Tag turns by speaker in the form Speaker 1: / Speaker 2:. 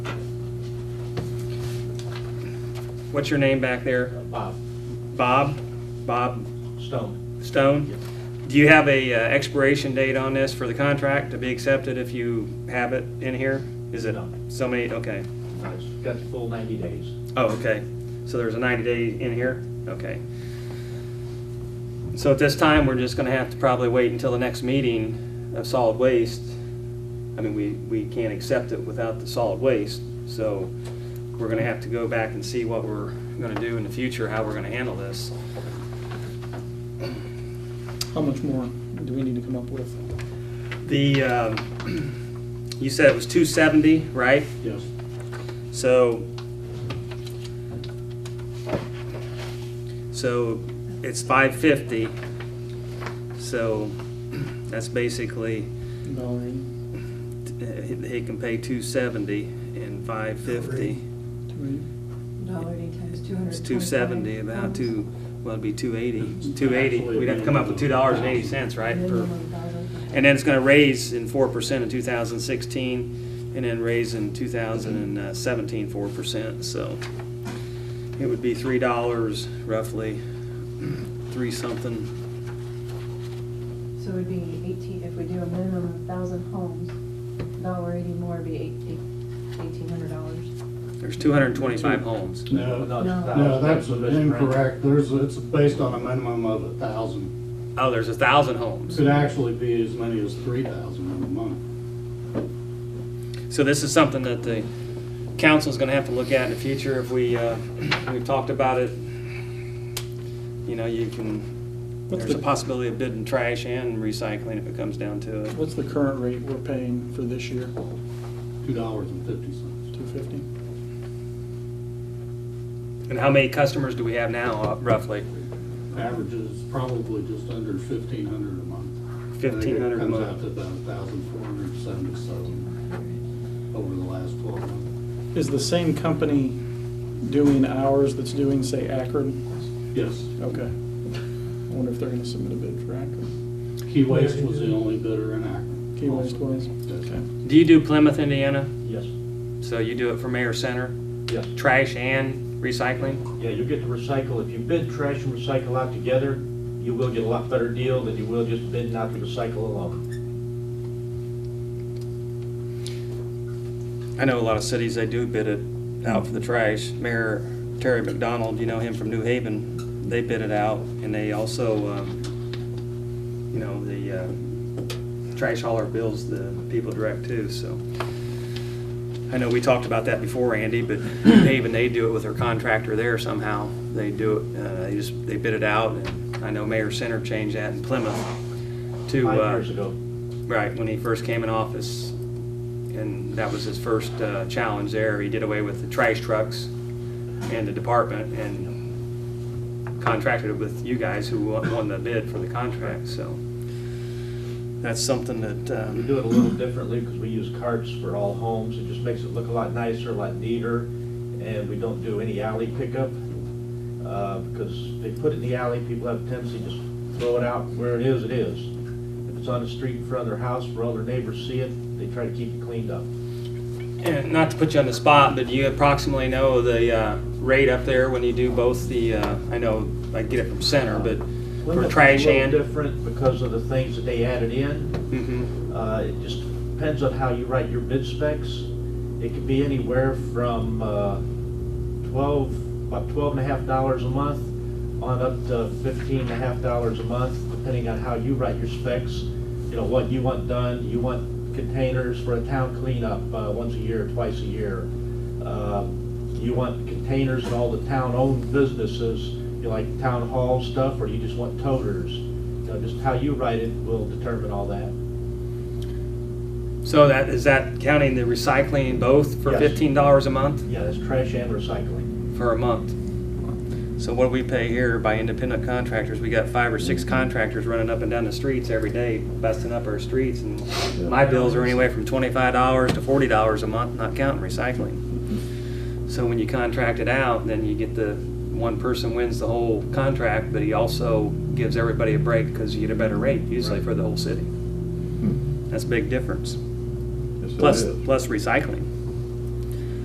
Speaker 1: What's your name back there?
Speaker 2: Bob
Speaker 1: Bob? Bob
Speaker 2: Stone.
Speaker 1: Stone? Do you have a uh, expiration date on this for the contract to be accepted if you have it in here? Is it
Speaker 2: No.
Speaker 1: so many, okay.
Speaker 2: It's got the full 90 days.
Speaker 1: Oh, okay. So there's a 90 day in here? Okay. So at this time, we're just going to have to probably wait until the next meeting of solid waste. I mean, we, we can't accept it without the solid waste, so we're going to have to go back and see what we're going to do in the future, how we're going to handle this.
Speaker 3: How much more do we need to come up with?
Speaker 1: The, um, you said it was 270, right?
Speaker 2: Yes.
Speaker 1: So, so it's five fifty. So that's basically,
Speaker 3: Valerie,
Speaker 1: uh, he he can pay two seventy and five fifty.
Speaker 3: do we,
Speaker 4: Dollar eighty times two hundred.
Speaker 1: It's two seventy, about two, well, it'd be two eighty.
Speaker 2: It's
Speaker 1: Two eighty, we'd have to come up with two dollars and eighty cents, right? for- And then it's gonna raise in four percent in two thousand sixteen, and then raise in 2017 4 percent, so. It would be three dollars roughly, three something,
Speaker 4: So it'd be eighteen, if we do a minimum of thousand homes, dollar eighty more would be eighteen hundred dollars.
Speaker 1: there's two hundred and twenty-five homes.
Speaker 5: No,
Speaker 2: No, it's
Speaker 4: No.
Speaker 2: thou-
Speaker 5: no, that's
Speaker 2: a misprint.
Speaker 5: incorrect. There's, it's based on a minimum of a thousand.
Speaker 1: Oh, there's a thousand homes.
Speaker 5: Could actually be as many as three thousand in a month.
Speaker 1: So this is something that the council's gonna have to look at in the future if we, uh, we've talked about it. You know, you can,
Speaker 3: What's
Speaker 1: there's a
Speaker 3: the-
Speaker 1: possibility of bidding trash and recycling if it comes down to it.
Speaker 3: what's the current rate we're paying for this year?
Speaker 5: Two dollars and fifty cents.
Speaker 3: Two fifty?
Speaker 1: And how many customers do we have now, uh, roughly?
Speaker 5: Averages probably just under fifteen hundred a month. I think it
Speaker 1: 1,500 a month.
Speaker 5: Comes out to about thousand four hundred seventy-seven over the last twelve months.
Speaker 3: Is the same company doing ours that's doing, say, Akron?
Speaker 5: Yes,
Speaker 3: Okay. I wonder if they're gonna submit a bid for Akron.
Speaker 5: Key Waste was the only bidder in Akron.
Speaker 3: Key West was? Okay.
Speaker 1: Do you do Plymouth, Indiana?
Speaker 2: Yes,
Speaker 1: So you do it for Mayor Center,
Speaker 2: yes.
Speaker 1: trash and recycling?
Speaker 2: Yeah, you'll get to recycle. If you bid trash and recycle out together, you will get a lot better deal than you will just bidding out the recycle alone.
Speaker 1: I know a lot of cities, they do bid it out for the trash. Mayor Terry McDonald, you know him from New Haven, they bid it out, and they also, um, you know, the uh, trash hauler bills the people direct too, so. I know we talked about that before, Andy, but New Haven, they do it with their contractor there somehow. They do it, uh, they just, they bid it out, and I know Mayor Center changed that in Plymouth to.
Speaker 2: Five
Speaker 1: uh,
Speaker 2: years ago.
Speaker 1: Right, when he first came in office, and that was his first uh, challenge there. He did away with the trash trucks and the department and contracted it with you guys who won won the bid for the contract, so. That's something that,
Speaker 2: We
Speaker 1: um,
Speaker 2: do it a little differently because we use carts for all homes. It just makes it look a lot nicer, a lot neater, and we don't do any alley pickup. uh, Because they put it in the alley, people have a tendency to just throw it out where it is, it is. If it's on the street in front of their house, where all their neighbors see it, they try to keep it cleaned up.
Speaker 1: and not to put you on the spot, but do you approximately know the uh, rate up there when you do both the, uh, I know I get it from center, but for
Speaker 2: Plymouth's
Speaker 1: trash
Speaker 2: a little
Speaker 1: and?
Speaker 2: Different because of the things that they added in.
Speaker 1: Mhm.
Speaker 2: Uh, It just depends on how you write your bid specs. It could be anywhere from uh, 12, about 12 and a half dollars a month on up to 15 and a half dollars a month, depending on how you write your specs. You know, what you want done, you want containers for a town cleanup uh, once a year, twice a year. Uh, You want containers in all the town-owned businesses, you like town hall stuff, or you just want toters. You know, Just how you write it will determine all that.
Speaker 1: So that, is that counting the recycling both for
Speaker 2: Yes.
Speaker 1: fifteen dollars a month?
Speaker 2: Yeah, that's trash and recycling.
Speaker 1: for a month. So what do we pay here by independent contractors? We got five or six contractors running up and down the streets every day, busting up our streets, and my bills are anywhere from twenty-five dollars to forty dollars a month, not counting recycling. So when you contract it out, then you get the, one person wins the whole contract, but he also gives everybody a break because you get a better rate usually for the whole city. That's a big difference. Plus, plus recycling.